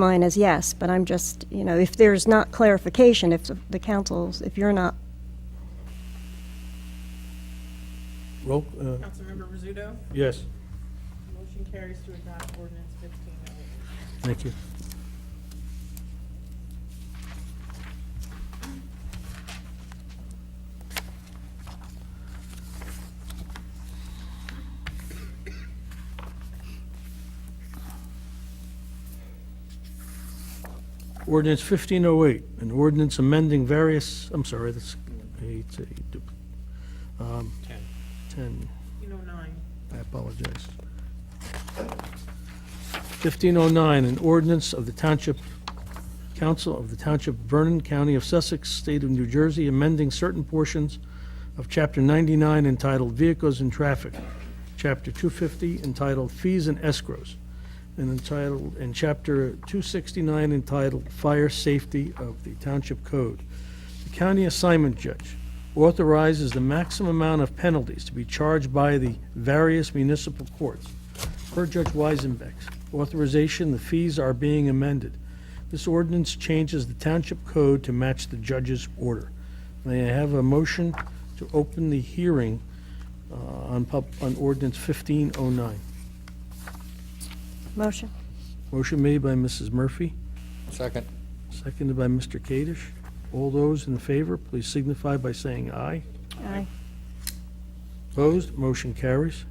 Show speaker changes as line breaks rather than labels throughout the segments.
Mine is yes, but I'm just, you know, if there's not clarification, if the- the councils, if you're not,
Roll, uh,
Councilmember Rizzuto.
yes,
Motion carries to adopt ordinance fifteen oh eight.
thank you. Ordinance 1508, an ordinance amending various, I'm sorry, that's eight, eight, dupl- um, 10.
Fifteen oh nine.
I apologize. 1509, an ordinance of the Township Council of the Township of Vernon, County of Sussex, State of New Jersey, amending certain portions of Chapter 99 entitled Vehicles and Traffic, Chapter 250 entitled Fees and Escrows, and entitled, and Chapter 269 entitled Fire Safety of the Township Code. The county assignment judge authorizes the maximum amount of penalties to be charged by the various municipal courts. Per Judge Weisenbeck's authorization, the fees are being amended. This ordinance changes the township code to match the judge's order. May I have a motion to open the hearing uh, on pub, on ordinance 1509?
motion?
Motion made by Mrs. Murphy,
Second.
seconded by Mr. Kadesh. All those in favor, please signify by saying aye.
Aye.
Opposed, motion carries.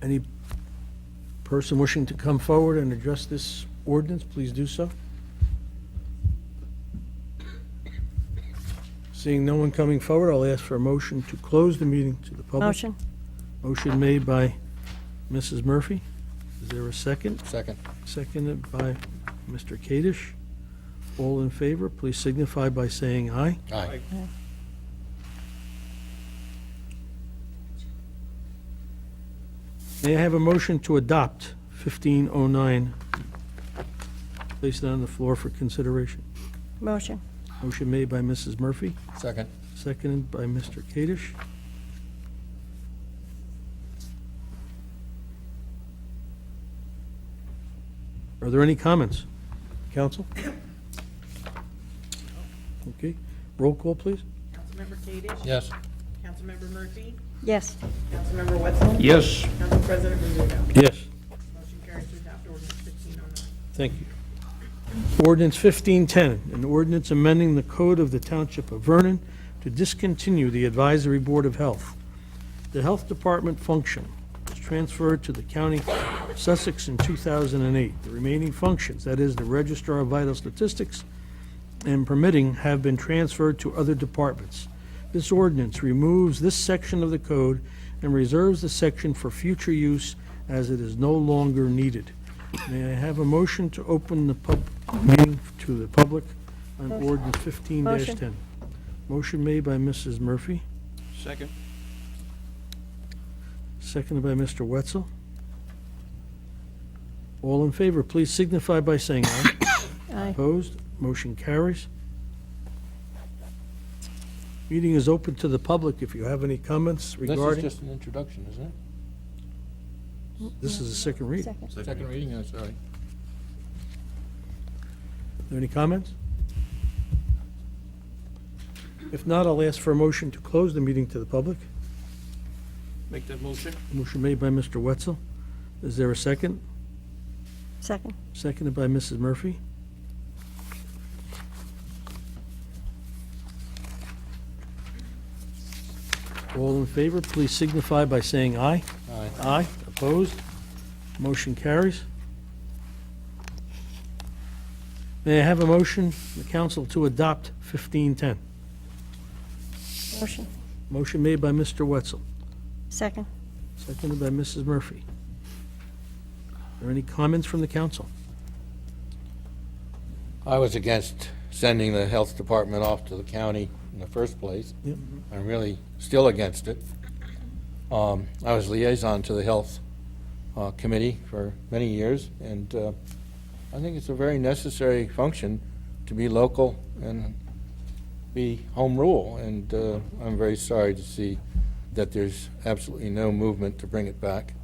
Any person wishing to come forward and address this ordinance, please do so. Seeing no one coming forward, I'll ask for a motion to close the meeting to the public.
Motion?
Motion made by Mrs. Murphy. Is there a second?
Second.
Seconded by Mr. Kadesh. All in favor, please signify by saying aye.
Aye.
May I have a motion to adopt 1509, Place it on the floor for consideration?
Motion?
Motion made by Mrs. Murphy,
Second.
seconded by Mr. Kadesh. Are there any comments? Council? Okay, roll call, please.
Councilmember Kadesh.
Yes.
Councilmember Murphy.
Yes.
Councilmember Wetzel.
Yes.
Council President Rizzuto.
Yes.
Motion carries to adopt ordinance fifteen oh nine.
Thank you. Ordinance 1510, an ordinance amending the code of the Township of Vernon to discontinue the Advisory Board of Health. The Health Department function was transferred to the County of Sussex in 2008. The remaining functions, that is, the Registrar of Vital Statistics and permitting, have been transferred to other departments. This ordinance removes this section of the code and reserves the section for future use as it is no longer needed. May I have a motion to open the pub, meeting to the public on ordinance fifteen ten?
Motion.
Motion made by Mrs. Murphy.
Second.
Seconded by Mr. Wetzel. All in favor, please signify by saying aye.
Aye.
Opposed, motion carries. Meeting is open to the public if you have any comments
This is
regarding,
just an introduction, isn't it?
this is a second read. Are
Second.
Second reading, I'm sorry.
there any comments? If not, I'll ask for a motion to close the meeting to the public.
Make that motion.
Motion made by Mr. Wetzel. Is there a second?
Second?
Seconded by Mrs. Murphy. All in favor, please signify by saying aye.
Aye.
Aye. Opposed? Motion carries. May I have a motion, the council, to adopt 1510?
Motion?
Motion made by Mr. Wetzel,
Second?
seconded by Mrs. Murphy. Are there any comments from the council?
I was against sending the health department off to the county in the first place.
Yep.
I'm really still against it. Um, I was liaison to the Health uh, Committee for many years, and uh, I think it's a very necessary function to be local and be home rule, and uh, I'm very sorry to see that there's absolutely no movement to bring it back.